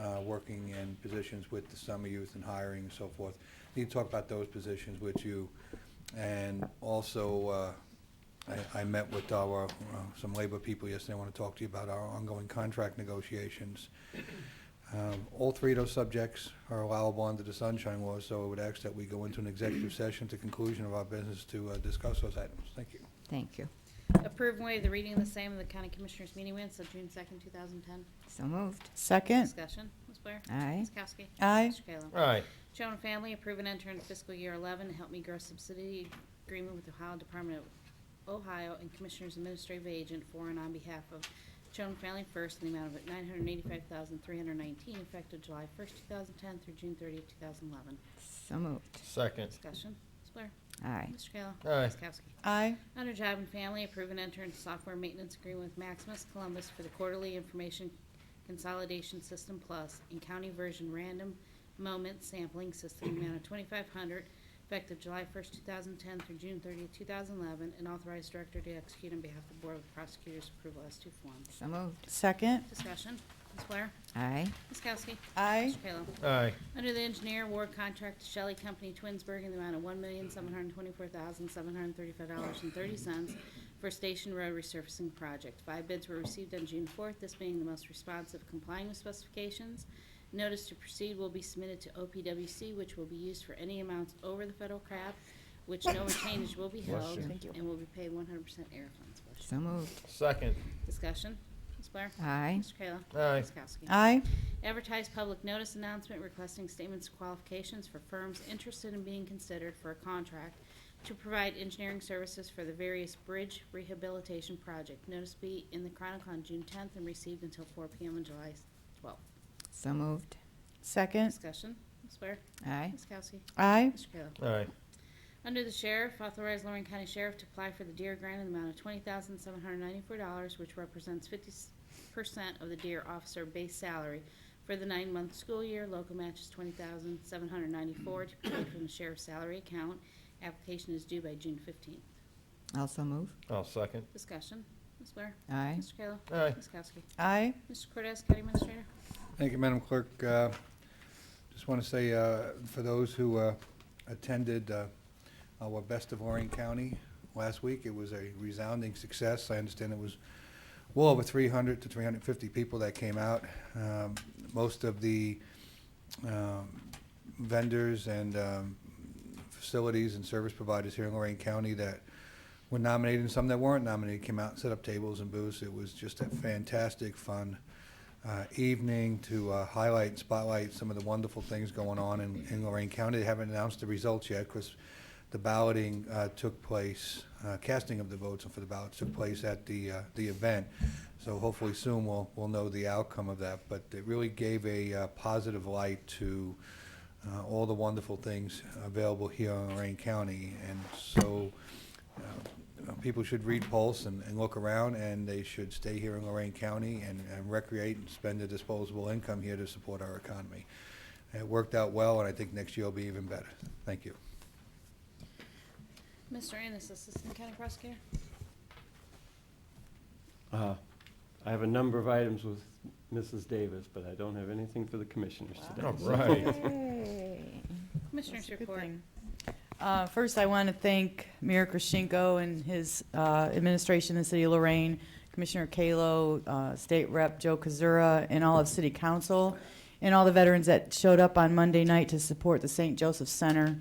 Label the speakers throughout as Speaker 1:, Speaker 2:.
Speaker 1: uh, working in positions with the summer youth and hiring and so forth. Need to talk about those positions with you. And also, uh, I, I met with our, uh, some labor people yesterday. I want to talk to you about our ongoing contract negotiations. Um, All three of those subjects are allowable under the sunshine law, so I would ask that we go into an executive session at the conclusion of our business to uh, discuss those items. Thank you.
Speaker 2: Thank you.
Speaker 3: Approve and waive the reading of the same in the County Commissioners meeting minutes of June second, two thousand ten.
Speaker 2: So moved.
Speaker 4: Second.
Speaker 3: Discussion, Ms. Blair.
Speaker 2: Aye.
Speaker 3: Ms. Kowski.
Speaker 4: Aye.
Speaker 3: Mr. Kayla.
Speaker 5: Aye.
Speaker 3: Children and Family, approve and enter into fiscal year eleven, help me grow subsidy agreement with Ohio Department of Ohio and Commissioners Administrative Agent for and on behalf of Children and Family First in the amount of nine hundred and eighty-five thousand, three hundred and nineteen, effective July first, two thousand ten through June thirtieth, two thousand eleven.
Speaker 2: So moved.
Speaker 5: Second.
Speaker 3: Discussion, Ms. Blair.
Speaker 2: Aye.
Speaker 3: Mr. Kayla.
Speaker 5: Aye.
Speaker 3: Ms. Kowski.
Speaker 4: Aye.
Speaker 3: Under Job and Family, approve and enter into software maintenance agreement with Maximus Columbus for the quarterly information consolidation system plus and county version random moment sampling system in the amount of twenty-five hundred effective July first, two thousand ten through June thirtieth, two thousand eleven, and authorized director to execute on behalf of the Board of Prosecutors' approval as to form.
Speaker 2: So moved.
Speaker 4: Second.
Speaker 3: Discussion, Ms. Blair?
Speaker 2: Aye.
Speaker 3: Ms. Kowski?
Speaker 4: Aye.
Speaker 3: Mr. Kayla?
Speaker 5: Aye.
Speaker 3: Under the engineer award contract to Shelley Company Twinsburg in the amount of one million, seven hundred and twenty-four thousand, seven hundred and thirty-five dollars and thirty cents for Station Road resurfacing project. Five bids were received on June fourth, this being the most responsive complying with specifications. Notice to proceed will be submitted to OPWC, which will be used for any amounts over the federal cap, which no retainage will be
Speaker 5: Bless
Speaker 3: held,
Speaker 5: you.
Speaker 2: Thank you.
Speaker 3: and will be paid one hundred percent air funds. Bless
Speaker 2: So moved.
Speaker 5: Second.
Speaker 3: you. Discussion, Ms. Blair?
Speaker 2: Aye.
Speaker 3: Mr. Kayla?
Speaker 5: Aye.
Speaker 3: Ms. Kowski?
Speaker 4: Aye.
Speaker 3: Advertise public notice announcement requesting statements of qualifications for firms interested in being considered for a contract to provide engineering services for the various bridge rehabilitation project. Notice be in the Chronicle on June 10th and received until 4 PM on July 12th.
Speaker 2: So moved.
Speaker 4: Second.
Speaker 3: Discussion, Ms. Blair?
Speaker 2: Aye.
Speaker 3: Ms. Kowski?
Speaker 4: Aye.
Speaker 3: Mr. Kayla?
Speaker 5: Aye.
Speaker 3: Under the sheriff, authorize Lorraine County Sheriff to apply for the deer grant in the amount of twenty thousand seven hundred ninety-four dollars, which represents fifty percent of the deer officer base salary for the nine-month school year. Local match is twenty thousand seven hundred ninety-four to be paid from the sheriff's salary account. Application is due by June fifteenth.
Speaker 2: Also moved.
Speaker 5: I'll second.
Speaker 3: Discussion. Ms. Blair?
Speaker 2: Aye.
Speaker 3: Mr. Kayla?
Speaker 5: Aye.
Speaker 3: Ms. Kowski?
Speaker 4: Aye.
Speaker 3: Mr. Cortez, County Administrator?
Speaker 1: Thank you, Madam Clerk. Uh, Just want to say, uh, for those who uh, attended uh, our Best of Lorraine County last week, it was a resounding success. I understand it was well over 300 to 350 people that came out. Um, Most of the um, vendors and um, facilities and service providers here in Lorraine County that were nominated and some that weren't nominated came out and set up tables and booths. It was just a fantastic, fun uh, evening to uh, highlight and spotlight some of the wonderful things going on in in Lorraine County. They haven't announced the results yet because the balloting uh, took place, uh, casting of the votes for the ballots took place at the, uh, the event. So hopefully soon we'll, we'll know the outcome of that. But it really gave a uh, positive light to uh, all the wonderful things available here in Lorraine County. And so uh, people should read Pulse and, and look around, and they should stay here in Lorraine County and, and recreate and spend their disposable income here to support our economy. It worked out well, and I think next year will be even better. Thank you.
Speaker 3: Mr. Ennis, Assistant County Prosecutor?
Speaker 6: Uh, I have a number of items with Mrs. Davis, but I don't have anything for the commissioners today.
Speaker 5: All right.
Speaker 2: Yay.
Speaker 3: Commissioners report.
Speaker 4: Uh, First, I want to thank Mayor Krashenko and his uh, administration in the city of Lorraine, Commissioner Kalo, uh, State Rep Joe Kazura, and all of City Council, and all the veterans that showed up on Monday night to support the St. Joseph Center.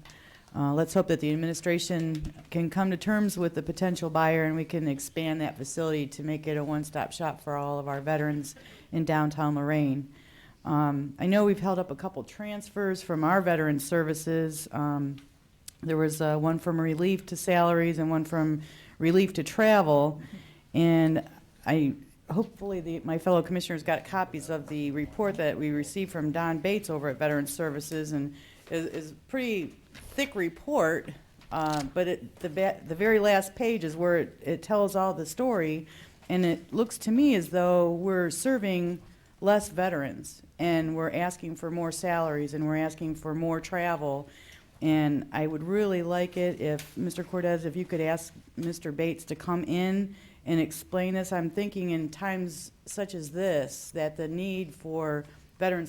Speaker 4: Uh, Let's hope that the administration can come to terms with the potential buyer, and we can expand that facility to make it a one-stop shop for all of our veterans in downtown Lorraine. Um, I know we've held up a couple transfers from our veteran services. Um, there was uh, one from relief to salaries and one from relief to travel. And I, hopefully, the, my fellow commissioners got copies of the report that we received from Don Bates over at Veterans Services, and is, is a pretty thick report, uh, but it, the, ba- the very last page is where it, it tells all the story, and it looks to me as though we're serving less veterans, and we're asking for more salaries, and we're asking for more travel, and I would really like it if, Mr. Cortez, if you could ask Mr. Bates to come in and explain this. I'm thinking in times such as this, that the need for veteran